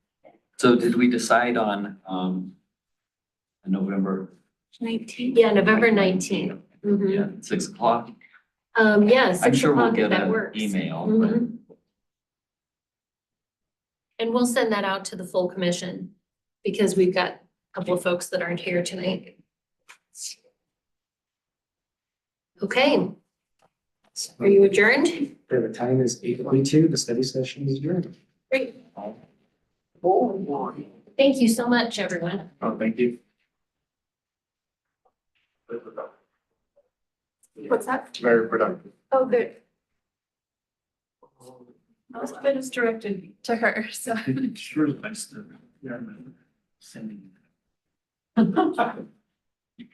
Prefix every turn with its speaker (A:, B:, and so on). A: So did we decide on, um, November?
B: Nineteen.
C: Yeah, November nineteenth.
A: Yeah, six o'clock.
C: Um, yeah,
A: I'm
C: Mm-hmm. six
A: sure we'll
C: o'clock if
A: get
C: that
A: an
C: works.
A: email, but
C: Mhm. And we'll send that out to the full commission because we've got a couple of folks that aren't here tonight. Okay. Are you adjourned?
D: The time is eight forty-two, the study session is adjourned.
C: Great. Thank you so much, everyone.
D: Oh, thank you.
B: What's that?
D: Very productive.
B: Oh, good. Most of it is directed to her, so.
C: Mm-hmm.
D: Sure, thanks to. Sending.